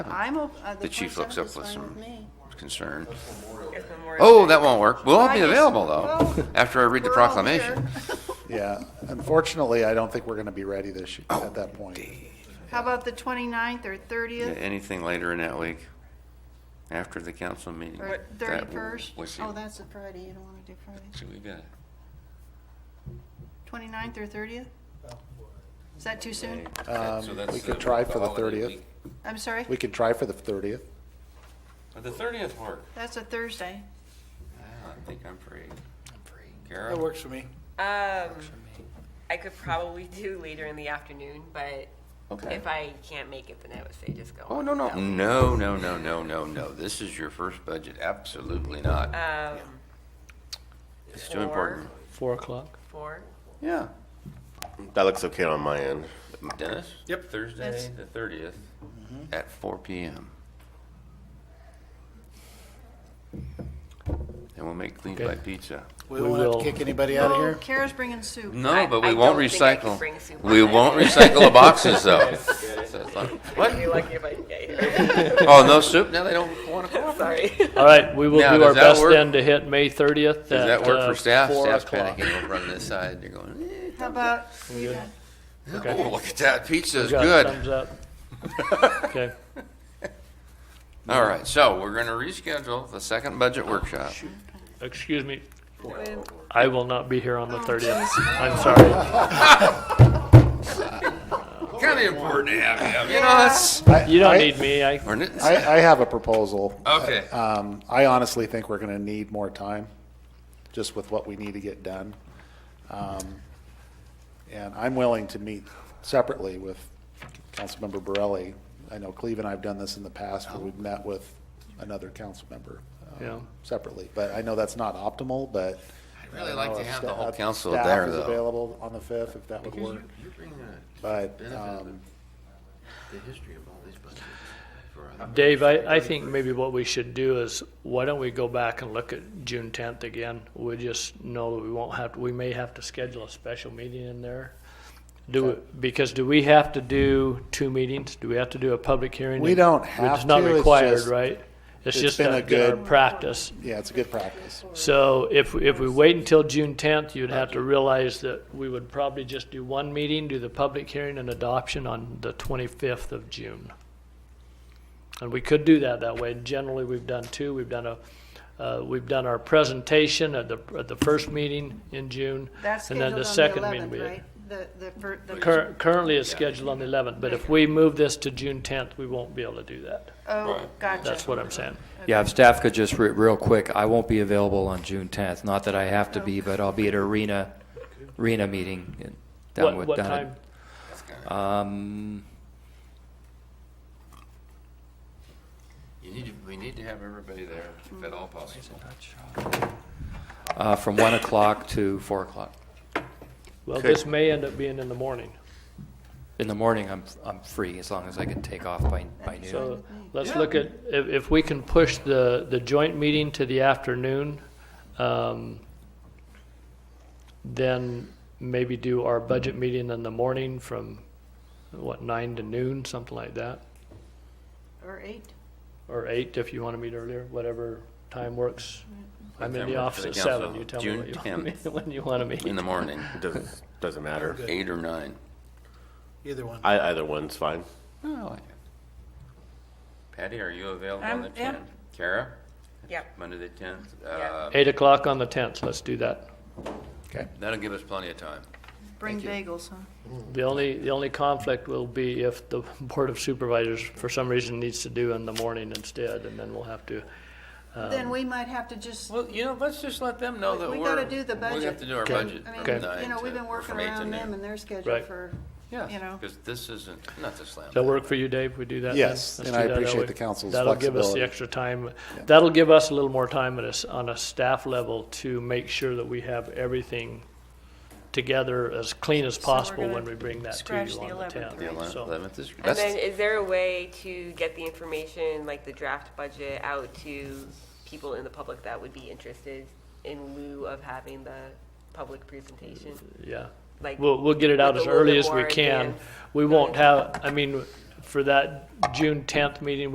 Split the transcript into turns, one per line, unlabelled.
I'm, o- uh, the
The chief looks
27th
up
is
with
fine
some
with me.
concern.
It's Memorial
Oh,
Day.
that won't work. We'll all be
Right.
available though,
Well,
after I read the
We're all
proclamation.
here.
Yeah, unfortunately, I don't think we're going to be ready this, y- at that point.
How about the 29th or 30th
Anything later in that week, after the council meeting?
or
that will-
31st?
we'll see.
Oh, that's a Friday, you don't want to do Friday.
See, we got it.
29th or 30th? Is that too soon?
Okay, so
Um,
that's
we could
the-
try
the
for the
holiday
30th.
week.
I'm sorry?
We could try for the 30th.
But The thirtieth work.
That's a Thursday.
Ah, I think I'm free. I'm free.
That
Kara?
works for me.
Um, I could probably do later in the afternoon, but
Okay.
if I can't make it, then I would say just go.
Oh,
on
no, no,
without.
no, no, no, no, no, no. This is your first budget. Absolutely not.
Um,
It's too important.
Four o'clock.
four.
Yeah.
That looks okay on my end.
Dennis?
Yep.
Thursday,
That's-
the thirtieth,
Mm-hmm.
at four PM. And we'll make clean by
Okay.
pizza.
We
We
won't have to
will.
kick anybody out of
Oh,
here.
Kara's bringing soup.
No,
I-
but
I
we won't
don't think I can
recycle,
bring soup
we
on.
won't recycle the boxes though. So it's like,
I'd be lucky if I can get here.
Oh, no soup? Now they don't wanna cooperate.
Sorry.
All right, we will
Now,
do
does
our
that
best
work?
then to hit May uh, 30th.
Does that work for staff? Staff's
Staff o'clock.
panicking over on this side. They're going,
How about,
eh,
Okay.
oh, look at that. Pizza's
Got a
good.
Thumbs up. Okay.
All right, so we're gonna reschedule the second budget workshop.
Excuse me. I will not be here on the
Oh,
30th. I'm sorry.
Kind of important to have him, you know,
Yeah.
that's,
I-
You don't
I-
need me. I,
or n-
I, I have a proposal.
Okay.
Um, I honestly think we're going to need more time, just with what we need to get done. Um, And I'm willing to meet separately with Councilmember Borelli. I know Cleve and I have done this in the past, where we've met with another council member um,
Yeah.
separately. But I know that's not optimal, but.
I'd really
I don't
like
know
to
if
have the
sta- uh,
whole council
staff
there,
is
though.
available on the 5th, if that would
Because
work.
you, you bring the
But,
benefit of
um,
the history of all these budgets for us.
Dave, I, I think maybe what we should do is, why don't we go back and look at June 10th again? We just know that we won't have, we may have to schedule a special meeting in there. Do, because do we have to do two meetings? Do we have to do a public hearing?
We don't
It's
have
not
to, it's
required,
just-
right? It's
it's
just
been
a
a
good
good-
practice.
yeah, it's a good practice.
So if, if we wait until June tenth, you'd have to realize that we would probably just do one meeting, do the public hearing and adoption on the twenty-fifth of June. And we could do that that way. Generally, we've done two. We've done a, uh, we've done our presentation at the, at the first meeting in June.
that's
and then
scheduled
the
on the
second meeting
11th,
we-
right? The, the, fir- the.
Cur- Currently, it's scheduled on the eleventh, but if we move this to June tenth, we won't be able to do that.
Oh, gotcha.
That's what I'm saying.
Yeah, if staff could just, re- real quick, I won't be available on June 10th. Not that I have to be, but I'll be at arena, arena meeting. in- down
What,
with-
what
down at-
time?
Um,
You need to, we need to have everybody there if at all possible.
uh, from 1 o'clock to 4 o'clock.
Well,
Could-
this may end up being in the morning.
In the morning, I'm, I'm free as long as I can take off by, by noon.
So let's look at, if, if we can push the, the joint meeting to the afternoon, um, then maybe do our budget meeting in the morning from, what, nine to noon, something like that?
Or eight.
Or eight, if you want to meet earlier, whatever time works. I'm in
Time
the
works for
office
the
at seven,
council.
you tell
June
me what you want me-
10th.
when you want to meet.
In the morning,
Doesn't doesn't matter.
eight or nine.
Either one.
I, either one's fine.
Oh, Patty, are you available
I'm-
on the
yeah.
tenth? Kara,
Yeah.
Monday the tenth? Uh,
Yeah.
Eight o'clock on the tenth, let's do that.
That'll give us plenty of time.
Bring bagels, huh?
The only, the only conflict will be if the Board of Supervisors, for some reason, needs to do in the morning instead, and then we'll have to. Um,
Then we might have to just,
Well, you know, let's just let them know
We-
that
we
we're.
gotta do the
We
budget.
have to do our
Okay.
budget
I
from
mean,
nine
you know, we've
to-
been working
from eight to
around them
noon.
and their schedule
Right.
for, you
Yeah,
know.
because this isn't, not to slam.
Does that work for you, Dave? We do that? then?
Yes,
Let's
and
do
I
that that
appreciate
way.
the council's
That'll give us the
flexibility.
extra time. That'll give us a little more time at a s- on a staff level to make sure that we have everything together as clean as
we're
possible
gonna
when we bring that to
scratch
you
the
on the
11th,
tenth.
The eleventh
So-
eleventh is,
And
that's,
then, is there a way to get the information, like the draft budget, out to people in the public that would be interested in lieu of having the public presentation?
Yeah.
Like,
We'll, we'll get it out
With
as
a little
early
bit
as we
more
can.
advance.
We won't have, I mean, for that June tenth meeting,